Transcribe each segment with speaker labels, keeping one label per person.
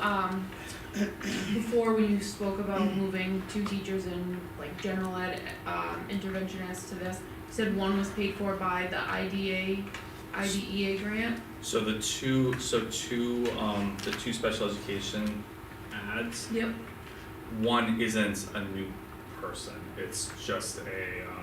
Speaker 1: um, before when you spoke about moving two teachers in like general ed, um, interventionists to this, you said one was paid for by the IDA, IDEA E grant?
Speaker 2: So the two, so two, um, the two special education ads,
Speaker 1: Yep.
Speaker 2: one isn't a new person, it's just a, um,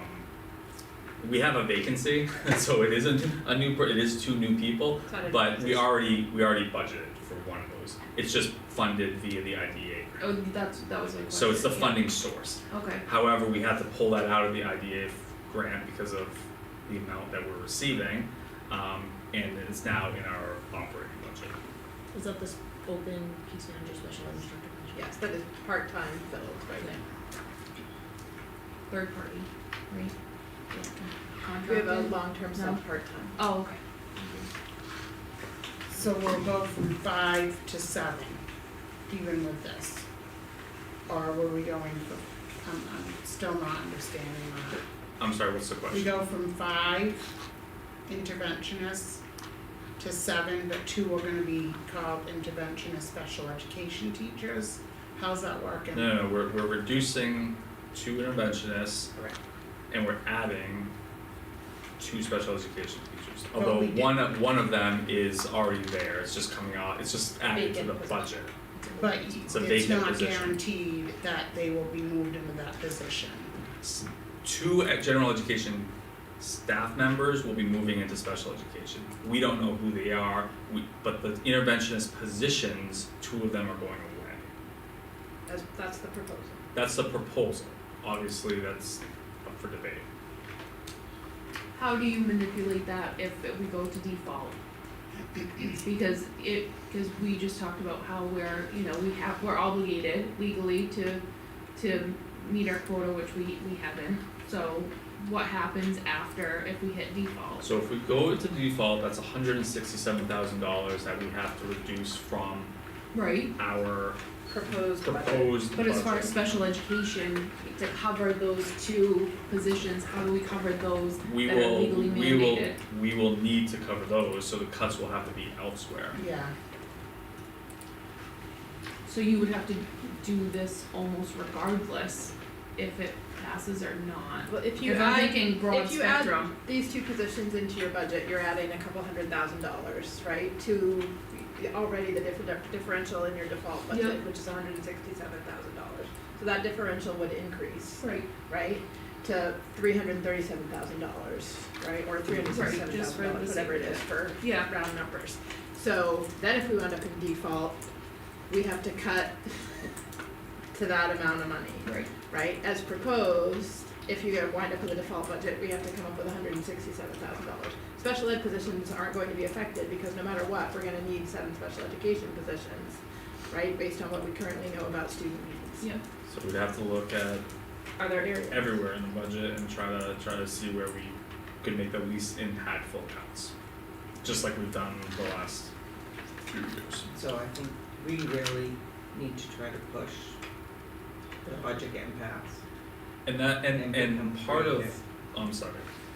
Speaker 2: we have a vacancy, so it isn't a new per, it is two new people, but we already, we already budgeted for one of those. It's just funded via the IDA grant,
Speaker 1: Oh, that's, that was my question.
Speaker 2: so it's the
Speaker 1: yeah.
Speaker 2: funding source.
Speaker 1: Okay,
Speaker 2: However, we had to pull that out of the IDA f- grant because of the amount that we're receiving, um, and it's now in our operating budget.
Speaker 3: Is that this open peace manager special ed instructor? position?
Speaker 4: Yes, that is part-time filled right now.
Speaker 1: third party, right? Yeah.
Speaker 4: We have
Speaker 1: Contracted?
Speaker 4: a long-term
Speaker 1: No.
Speaker 4: sub part-time.
Speaker 1: Oh, okay.
Speaker 5: So we'll go from five to seven, even with this? Or were we going for, I'm, I'm still not understanding that.
Speaker 2: I'm sorry, what's the
Speaker 5: We
Speaker 2: question?
Speaker 5: go from five interventionists to seven, but two are gonna be called interventionist special education teachers? How's that working?
Speaker 2: No, no, no, we're, we're reducing two interventionists
Speaker 5: Correct.
Speaker 2: and we're adding two special education teachers.
Speaker 5: But
Speaker 2: Although
Speaker 5: we did-
Speaker 2: one, of- one of them is already there, it's just coming out, it's just added to
Speaker 3: Vacant
Speaker 2: the
Speaker 3: position.
Speaker 2: budget.
Speaker 5: But
Speaker 2: a
Speaker 5: it's
Speaker 2: vacant
Speaker 5: not
Speaker 2: position.
Speaker 5: guaranteed that they will be moved into that position.
Speaker 2: S- Two e- general education staff members will be moving into special education. We don't know who they are, we, but the interventionist positions, two of them are going away.
Speaker 4: That's, that's the proposal.
Speaker 2: That's the proposal, obviously, that's up for debate.
Speaker 1: How do you manipulate that if if we go to default? Because it, because we just talked about how we're, you know, we have, we're obligated legally to, to meet our quota, which we, we haven't. So what happens after if we hit default?
Speaker 2: So if we go into default, that's hundred and sixty-seven thousand dollars that we have to reduce from
Speaker 1: Right,
Speaker 2: our
Speaker 4: Proposed budget.
Speaker 2: proposed budget.
Speaker 3: But as far as special education, to cover those two positions, how do we cover those?
Speaker 2: We
Speaker 1: that are
Speaker 2: will,
Speaker 1: legally
Speaker 2: we will,
Speaker 1: mandated.
Speaker 2: we will need to cover those, so the cuts will have to be elsewhere.
Speaker 5: Yeah,
Speaker 1: so you would have to do this almost regardless if it passes or not.
Speaker 4: Well, if you
Speaker 1: If I'm
Speaker 4: add,
Speaker 1: thinking broad
Speaker 4: if you add-
Speaker 1: spectrum,
Speaker 4: these two positions into your budget, you're adding a couple hundred thousand dollars, right? To already the different differential in your default budget,
Speaker 1: Yep.
Speaker 4: which is hundred and sixty-seven thousand dollars. So that differential would increase,
Speaker 1: right,
Speaker 4: right, to three hundred and thirty-seven thousand dollars, right, or three hundred sixty-seven
Speaker 1: just for
Speaker 4: thousand
Speaker 1: the
Speaker 4: dollars, whatever it
Speaker 1: sake of
Speaker 4: is for
Speaker 1: yeah,
Speaker 4: round numbers. So then if we wound up in default, we have to cut to that amount of money
Speaker 1: right,
Speaker 4: right? As proposed, if you wind up with a default budget, we have to come up with hundred and sixty-seven thousand dollars. Special ed positions aren't going to be affected because no matter what, we're gonna need seven special education positions, right, based on what we currently know about student needs.
Speaker 1: yeah,
Speaker 2: So we'd have to look at
Speaker 4: Are there areas?
Speaker 2: everywhere in the budget and try to, try to see where we could make the least impactful cuts. Just like we've done the last few years.
Speaker 6: So I think we really need to try to push the budget getting passed.
Speaker 2: And that, and, and
Speaker 6: become
Speaker 2: part of,
Speaker 6: creative.
Speaker 2: I'm sorry,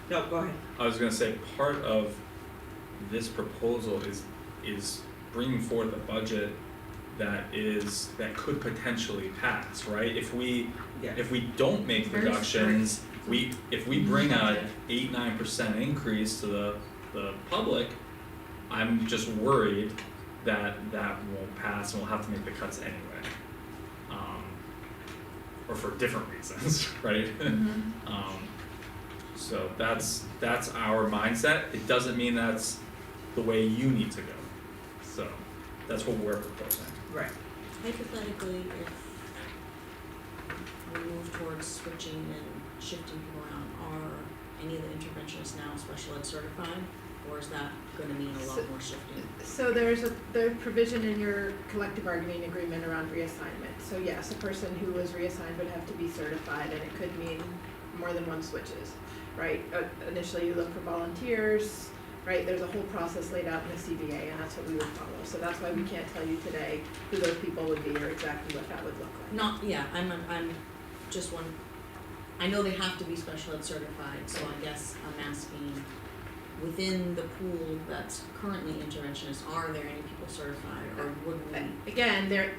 Speaker 6: No, go ahead.
Speaker 2: I was gonna say, part of this proposal is, is bringing forth a budget that is, that could potentially pass, right? If we,
Speaker 6: Yeah.
Speaker 2: if we don't make
Speaker 1: Very
Speaker 2: reductions, we, if we bring a eight, nine percent increase to the, the public, I'm just worried that that won't pass and we'll have to make the cuts anyway. Um, or for different reasons, right?
Speaker 1: mhm.
Speaker 2: Um, so that's, that's our mindset, it doesn't mean that's the way you need to go, so that's what we're proposing.
Speaker 6: Right.
Speaker 3: Hypothetically, if we move towards switching and shifting people around, are any of the interventionists now special ed certified? Or is that gonna mean a lot more shifting?
Speaker 4: So there's a, the provision in your collective bargaining agreement around reassignment. So yes, a person who was reassigned would have to be certified and it could mean more than one switches, right? Uh, Initially, you look for volunteers, right? There's a whole process laid out in the CBA and that's what we would follow. So that's why we can't tell you today who those people would be or exactly what that would look like.
Speaker 3: Not, yeah, I'm, I'm, I'm just one, I know they have to be special ed certified, so I guess I'm asking within the pool that's currently interventionist, are there any people certified or would we?
Speaker 4: Again, there,